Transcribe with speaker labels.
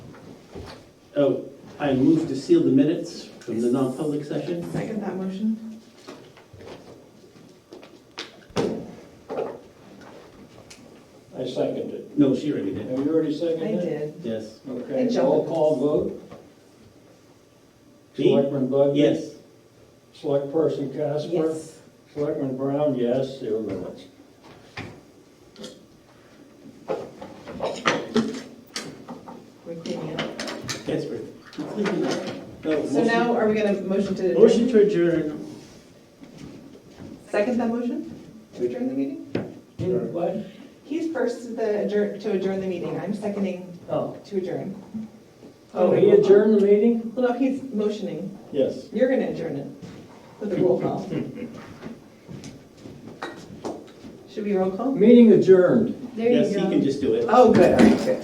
Speaker 1: Oh, I move to seal the minutes from the non-public session.
Speaker 2: Second that motion.
Speaker 3: I second it.
Speaker 1: No, she already did.
Speaker 3: Have you already
Speaker 2: I
Speaker 3: seconded it?
Speaker 2: did.
Speaker 1: Yes.
Speaker 2: I
Speaker 3: Okay,
Speaker 2: jumped.
Speaker 3: roll call vote.
Speaker 1: Me?
Speaker 3: Selectman Bugby?
Speaker 1: Yes.
Speaker 3: Select person Casper?
Speaker 2: Yes.
Speaker 3: Selectman Brown, yes, seal minutes.
Speaker 2: We're cleaning up.
Speaker 1: Casper. No,
Speaker 2: So
Speaker 1: Oh, motion-
Speaker 2: now, are we gonna motion to adjourn?
Speaker 1: Motion to adjourn.
Speaker 2: Second that motion? To adjourn the meeting?
Speaker 3: What?
Speaker 2: He's first to the adjourn, to adjourn the meeting. I'm seconding
Speaker 3: Oh,
Speaker 2: to adjourn.
Speaker 3: oh, he adjourned the meeting?
Speaker 2: Well, no, he's motioning.
Speaker 3: Yes.
Speaker 2: You're gonna adjourn it with a roll call. Should we roll call?
Speaker 3: Meeting adjourned.
Speaker 2: There
Speaker 1: Yes,
Speaker 2: you
Speaker 1: he
Speaker 2: go.
Speaker 1: can just do it.
Speaker 2: Oh, good, all right, good.